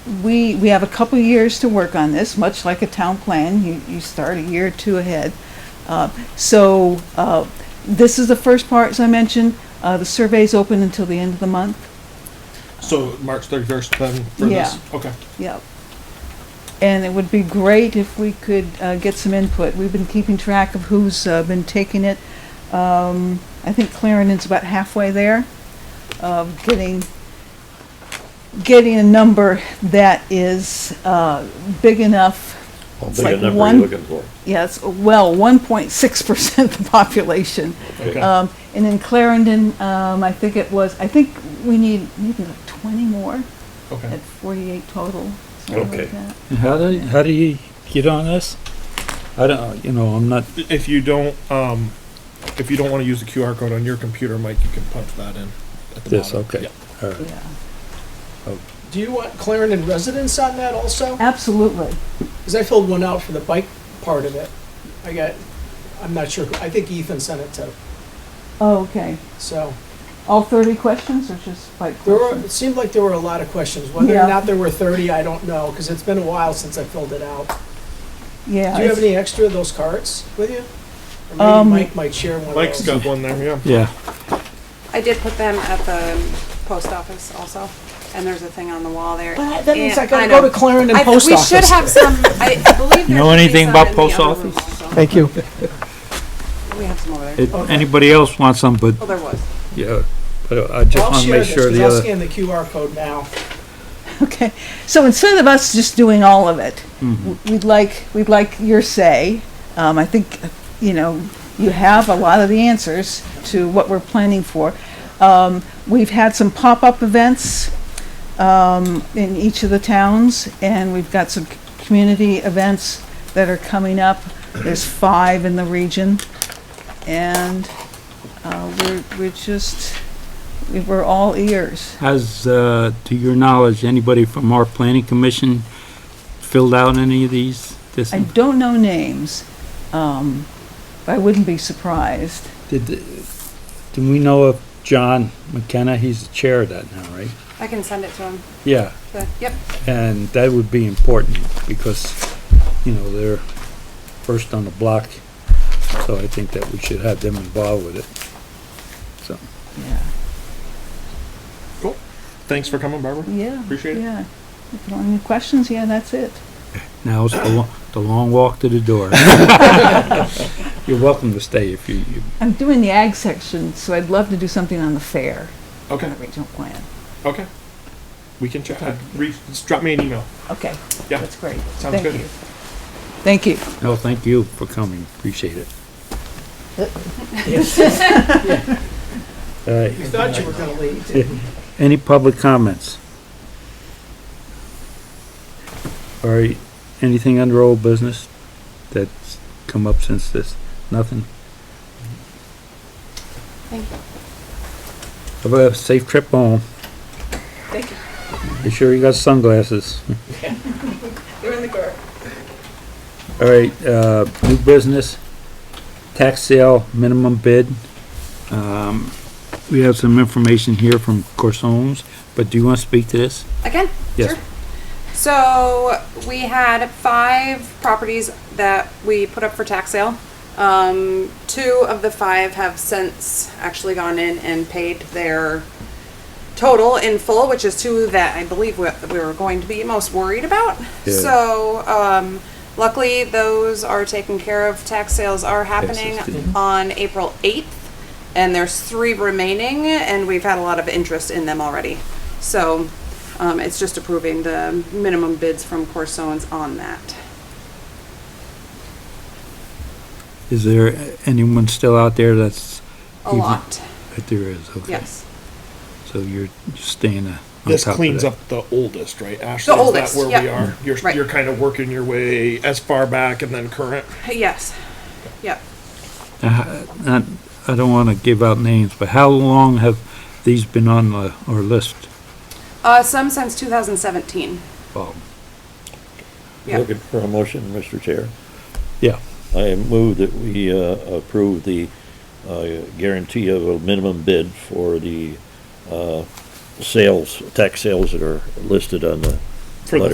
we, we have a couple years to work on this, much like a town plan, you, you start a year or two ahead. Uh, So, uh, this is the first part, as I mentioned, uh, the survey's open until the end of the month, So March thirty-first then for this? Okay. yep. And it would be great if we could uh, get some input, we've been keeping track of who's uh, been taking it. Um, I think Clarendon's about halfway there, of getting, getting a number that is uh, big enough Well, It's big like enough are one- you looking for? Yes, well, 1.6% of the population. Okay. Um, And in Clarendon, um, I think it was, I think we need maybe like 20 more Okay. at 48 total, something Okay. like that. How do, how do you get on this? I don't, uh, you know, I'm not, If you don't, um, if you don't wanna use the QR code on your computer, Mike, you can punch that in at the this, bottom. okay. Yeah. All right. Yeah, Do you want Clarendon residents on that also? absolutely. Because I filled one out for the bike part of it. I got, I'm not sure, who- I think Ethan sent it to, Oh, okay. so. All 30 questions or just like There were, questions? it seemed like there were a lot of questions. Whether Yeah. or not there were thirty, I don't know, because it's been a while since I filled it out. Yeah. Do you it's- have any extra of those cards with you? Or Um, maybe Mike might share one of those. Mike's got one there, yeah. Yeah, I did put them at the post office also, and there's a thing on the wall there. But That means I And- gotta know. go to Clarendon I th- Post Office. We should have some, I I believe. You know there should be anything some about in the post other room also. Thank you. We have some over there. If anybody else wants some, but, Oh, there was. yeah, but I just I'll wanna share make this, sure 'cause the I'll other, scan the QR code now. Okay, so instead of us just doing all of it, w- we'd like, we'd like your say. Um, I think, you know, you have a lot of the answers to what we're planning for. Um, we've had some pop-up events, um, in each of the towns, and we've got some c- community events that are coming up. There's five in the region, and, uh, we're, we're just, we're all ears. has, uh, to your knowledge, anybody from our planning commission filled out any of these? This, I don't know names, um, but I wouldn't be surprised. did, the- do we know of John McKenna? He's the chair of that now, right? I can send it to him. Yeah, The- Yep, and that would be important because, you know, they're first on the block. So I think that we should have them involved with it. So. Yeah. Cool. Thanks for coming, Barbara. Yeah. Appreciate it. Yeah. If you want any questions, yeah, that's it. Now it's the long, the long walk to the door. You're welcome to stay if you, you, I'm doing the ag section, so I'd love to do something on the fair. Okay, On the regional plan. okay. We can check that. Reach, just drop me an email. Okay, Yeah. that's great. Sounds Thank good. you. Thank you. no, thank you for coming, appreciate it. All right, You thought you were gonna leave. any public comments? All right, anything under old business that's come up since this? Nothing? thank you. Have a safe trip home. Thank you. Be sure you got sunglasses. You're in the car. All right, uh, new business, tax sale minimum bid. Um, we have some information here from Corsones, but do you want to speak to this? Again? Yes. Sure. So we had five properties that we put up for tax sale. Um, two of the five have since actually gone in and paid their total in full, which is two that I believe we, we were going to be most worried about. Yeah. So, um, luckily those are taken care of. Tax sales are happening Taxes, on April eighth. And there's three remaining and we've had a lot of interest in them already. So, um, it's just approving the minimum bids from Corsones on that. Is there anyone still out there that's, A Even- lot, that there is, okay? yes. So you're you're staying uh, on This top of cleans that. up the oldest, right? Ashley, is that oldest, where we yep. are? You're, Right. you're kind of working your way as far back and then current. Yes, yep. Not- I don't want to give out names, but how long have these been on the, our list? Uh, some since 2017. Bob? Yeah. Looking for a motion, Mr. Chair. Yeah. I move that we uh, approve the uh, guarantee of a minimum bid for the uh, sales, tax sales that are listed on the For the Letter.